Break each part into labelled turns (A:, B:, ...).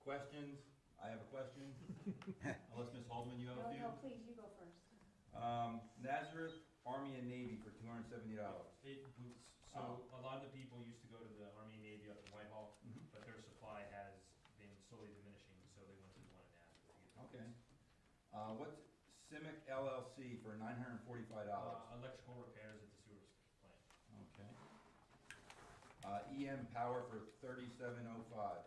A: Questions? I have a question. Unless Ms. Holdeman, you have a
B: No, no,
A: few?
B: please, you go first.
A: Um, Nazareth Army and Navy for two hundred and seventy dollars.
C: It was, so
A: Oh.
C: a lot of the people used to go to the Army and Navy up in Whitehall,
A: Mhm.
C: but their supply has been slowly diminishing, so they went to the one in Nazareth. to get the
A: Okay.
C: goods.
A: Uh, what's Simic LLC for nine hundred and forty-five dollars?
C: Uh, electrical repairs at the sewer plant.
A: Okay. Uh, EM Power for thirty-seven oh five.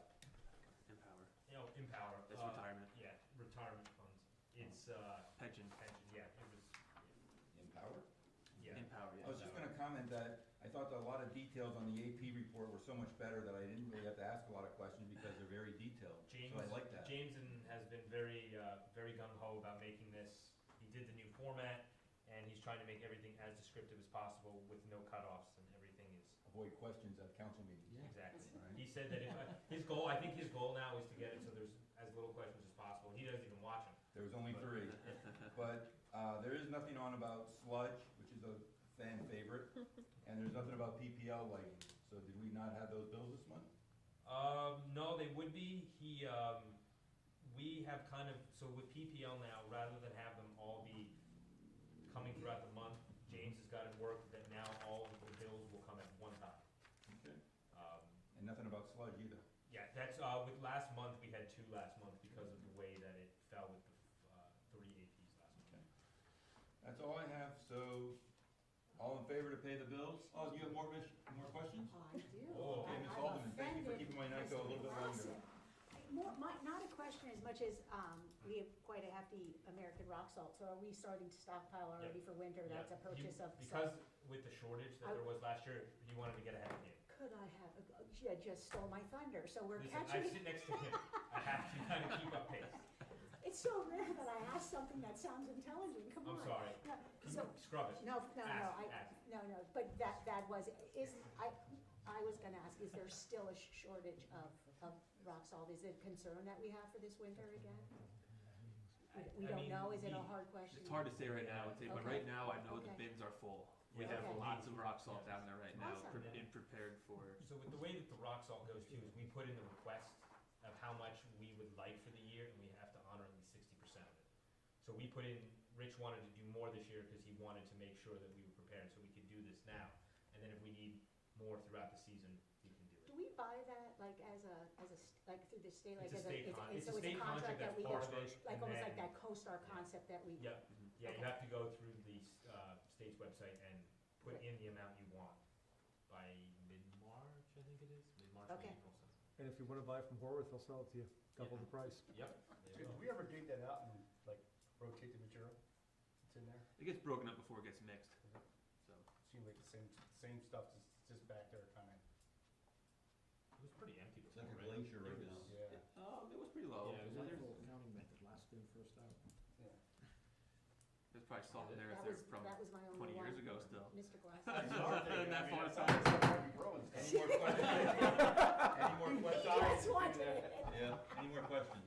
D: Empower.
C: You know, Empower.
D: That's
C: uh,
D: retirement.
C: Yeah, retirement funds. It's, uh,
D: Pension.
C: pension, yeah, it was,
A: Empower?
C: yeah.
D: Empower,
A: I was
D: yeah.
A: just gonna comment that I thought that a lot of details on the AP report were so much better that I didn't really have to ask a lot of questions because they're very detailed. So
C: James,
A: I like that.
C: James and- has been very, uh, very gung ho about making this. He did the new format, and he's trying to make everything as descriptive as possible with no cutoffs, and everything is
A: Avoid questions at council meetings.
C: Exactly.
A: Right.
C: He said that if, I- his goal, I think his goal now is to get it so there's as little questions as possible, and he doesn't even watch them.
A: There was only three. But uh, there is nothing on about sludge, which is a fan favorite, and there's nothing about PPL lighting. So did we not have those bills this month?
C: Um, no, they would be, he, um, we have kind of, so with PPL now, rather than have them all be coming throughout the month, James has got it worked that now all of the bills will come at one time.
A: Okay.
C: Um,
A: And nothing about sludge either.
C: Yeah, that's, uh, with last month, we had two last month because of the way that it fell with the, uh, three APs last month.
A: Okay. That's all I have, so all in favor to pay the bills? Oh, you have more, Mich- more questions?
B: I do.
A: Oh, okay,
B: I-
A: Ms.
B: I'm
A: Alderman, thank you for
B: offended,
A: keeping my night go a
B: Mr.
A: little bit longer.
B: Lawson. More, my, not a question as much as, um, we have quite a hefty American rock salt, so are we starting to stockpile already
C: Yeah.
B: for winter? That's a
C: Yeah, you-
B: purchase of.
C: Because with the shortage that
B: I-
C: there was last year, you wanted to get ahead of him.
B: Could I have, uh, a- you just stole my thunder, so we're
C: Listen, I
B: catching,
C: sit next to him. I have to kind of keep up pace.
B: it's so rare that I ask something that sounds intelligent, come on.
C: I'm sorry.
B: No, So,
C: Scrub it.
B: No, no, no,
C: Ask,
B: I,
C: ask.
B: no, no, but that, that was, is, I, I was gonna ask, is there still a sh- shortage of, of rock salt? Is it a concern that we have for this winter again? We- We
C: I
B: don't
C: mean,
B: know, is it a
C: we-
B: hard question?
D: It's hard to say right now, I'd say, but right
B: Okay.
D: now, I know the
B: Okay.
D: bins are full. We
C: Yeah.
D: have
B: Okay.
D: lots of rock salt down there right now,
B: Awesome.
D: pre- and prepared for,
C: So with the way that the rock salt goes too, is we put in the request of how much we would like for the year, and we have to honor at least sixty percent of it. So we put in, Rich wanted to do more this year because he wanted to make sure that we were prepared, so we could do this now. And then if we need more throughout the season, we can do it.
B: Do we buy that, like, as a, as a, st- like, through the state, like,
C: It's
B: as
C: a state con, it's
B: so
C: a state contract
B: that
C: that's
B: we
C: part of
B: get,
C: it.
B: Like,
C: and
B: almost like
C: then-
B: that co-star
C: Yeah.
B: concept that we.
C: Yep,
D: Mhm.
C: yeah, you
B: Okay.
C: have to go through the uh, state's website and put in the amount you want by mid-March, I think it is, mid-March, or
B: Okay.
C: April, something.
E: And if you want to buy from Horworth, they'll sell it to you, double the price.
C: Yep. there you go.
F: Did we ever dig that out and like rotate the material that's in there?
D: it gets broken up before it gets mixed, so.
F: Seemed like the same, same stuff, just, just back there kind
C: It was pretty empty
A: It's
C: before,
A: like a
C: right?
A: glacier right now.
D: It was-
F: of,
D: Um,
F: yeah,
D: it was pretty low.
C: Yeah, it was
D: There's-
E: counting method, last in, first out.
F: yeah.
D: There's probably salt in there if
B: That
D: they're
B: was,
D: from
B: that was my only one.
D: twenty years ago still.
B: Mr. Glass.
F: It's hard to dig it.
D: That
F: I mean,
D: far
F: it's not- it's not gonna be growing stuff.
A: Any more questions? Any more questions?
B: Yes, watch it.
A: Yeah, any more questions?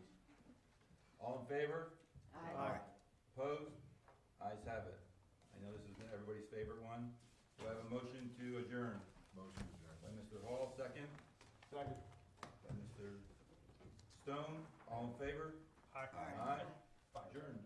A: All in favor?
F: Aye.
A: Opposed? Ayes have it. I know this is everybody's favorite one. Do I have a motion to adjourn? Motion to adjourn. By Mr. Hall, second.
F: Second.
A: By Mr. Stone, all in favor? Aye. Aye. Adjourned.